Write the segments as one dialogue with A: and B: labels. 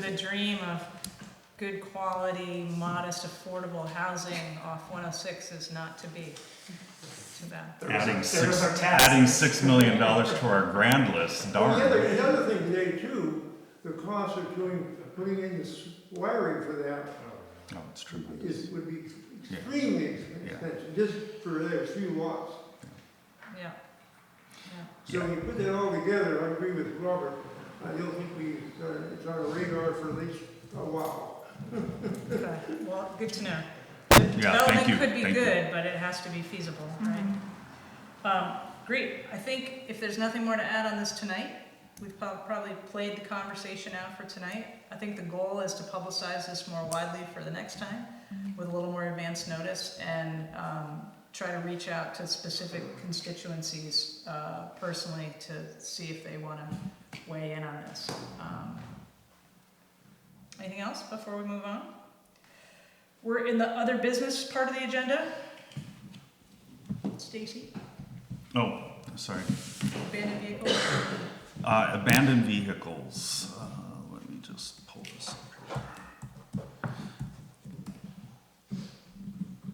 A: the dream of good quality, modest, affordable housing off 106 is not to be. Too bad.
B: There was-
C: Adding
B: there was
C: six,
B: our task.
C: adding six million dollars to our grand list,
D: Well, The other,
C: darn.
D: the other thing today too, the cost of doing, putting in this wiring for that
C: No, Oh, it's true.
D: is, would be extremely expensive, just for those few watts.
A: Yeah.
D: So when you put that all together, I agree with Robert, I don't think we, uh, it's on our radar for at least a while.
A: Okay. Well, good to know.
C: Yeah, thank you,
A: Development could be
C: thank you.
A: good, but it has to be feasible, right? Um, Great. I think if there's nothing more to add on this tonight, we've prob- probably played the conversation out for tonight. I think the goal is to publicize this more widely for the next time with a little more advance notice and um, try to reach out to specific constituencies uh, personally to see if they want to weigh in on this. Um, Anything else before we move on? We're in the other business part of the agenda. Stacy,
C: Oh, sorry.
A: abandoned vehicles.
C: Uh, abandoned vehicles, uh, let me just pull this up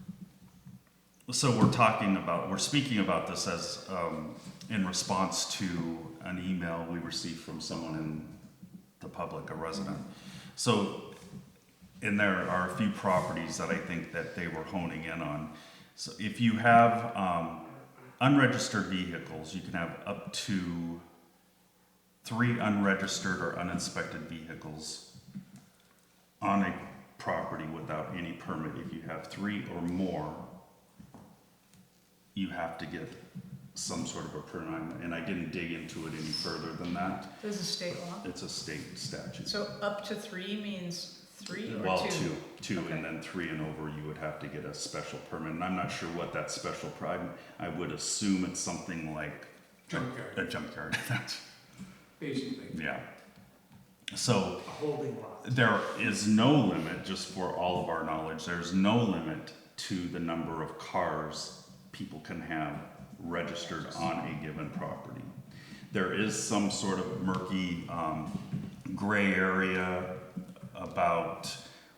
C: here. So we're talking about, we're speaking about this as, um, in response to an email we received from someone in the public, a resident. So, and there are a few properties that I think that they were honing in on. So if you have, um, unregistered vehicles, you can have up to three unregistered or uninspected vehicles on a property without any permit. If you have three or more, you have to get some sort of a permit, and I didn't dig into it any further than that.
A: This is state law.
C: It's a state statute.
A: So up to three means three or
C: Well, two, two,
A: Okay.
C: and then three and over, you would have to get a special permit, and I'm not sure what that special permit, I would assume it's something like
B: Junkyard,
C: a junkyard,
B: basically,
C: yeah. So,
B: a holding lot.
C: there is no limit, just for all of our knowledge, there's no limit to the number of cars people can have registered on a given property. There is some sort of murky um, gray area about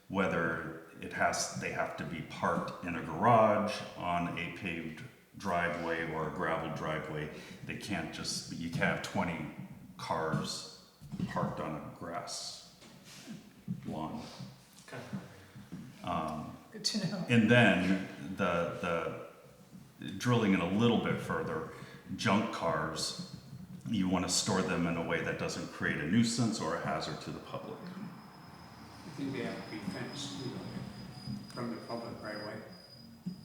C: whether it has, they have to be parked in a garage, on a paved driveway or a gravel driveway. They can't just, you can't have twenty cars parked on a grass lawn.
B: Kind
A: Good to know.
C: Um, And then the, the, drilling it a little bit further, junk cars, you want to store them in a way that doesn't create a nuisance or a hazard to the public.
E: I think they have to be fenced, you know, from the public right away.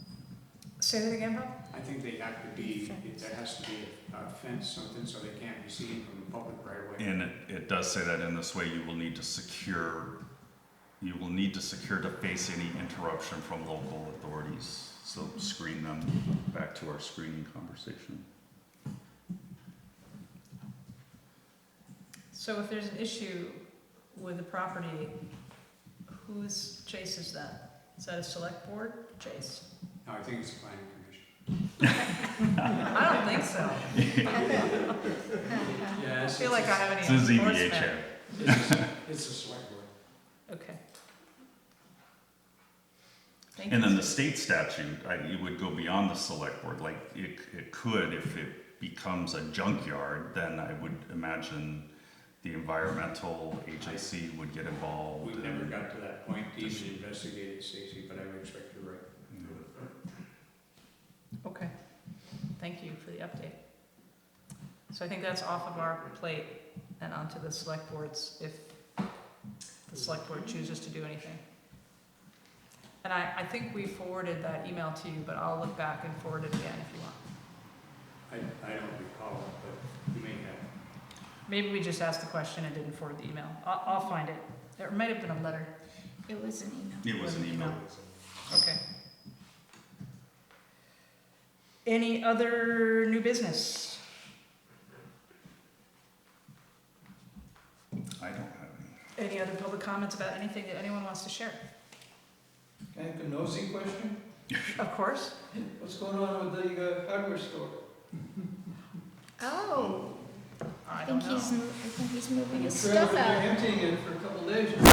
A: Say that again, Bob?
E: I think they have to be, there has to be a fence, something, so they can't be seen from the public right away.
C: And it, it does say that in this way, you will need to secure, you will need to secure to face any interruption from local authorities. So screen them, back to our screening conversation.
A: So if there's an issue with the property, whose chase is that? Is that a select board chase?
E: No, I think it's the planning commission.
A: I don't think so.
B: Yeah,
A: I
B: it's,
A: feel like I have
C: This
A: any
C: is E ZBA
A: Oh, enforcement.
C: chair.
B: it's, a- it's a select board.
A: Okay. Thank
C: And
A: you.
C: then the state statute, I, it would go beyond the select board, like, it, it could, if it becomes a junkyard, then I would imagine the environmental agency would get involved.
E: We've
C: and-
E: never got to that point, to even investigate it, Stacy, but I would expect you're right.
A: Okay, thank you for the update. So I think that's off of our plate and onto the select boards if the select board chooses to do anything. And I, I think we forwarded that email to you, but I'll look back and forward it again if you want.
E: I, I don't recall, but you may have.
A: Maybe we just asked the question and didn't forward the email. I'll, I'll find it. There might have been a letter.
F: It was an email.
C: It was an email.
A: Okay. Any other new business?
C: I don't have any.
A: Any other public comments about anything that anyone wants to share?
G: Can I have a nosy question?
A: Of course.
G: What's going on with the uh, hardware store?
F: Oh,
A: I
F: I
A: don't
F: think
A: know.
F: he's, mo- I Oh, think he's moving
G: And the
F: his
G: trailer,
F: stuff
G: They're
F: out.
G: emptying it for a couple recommendations.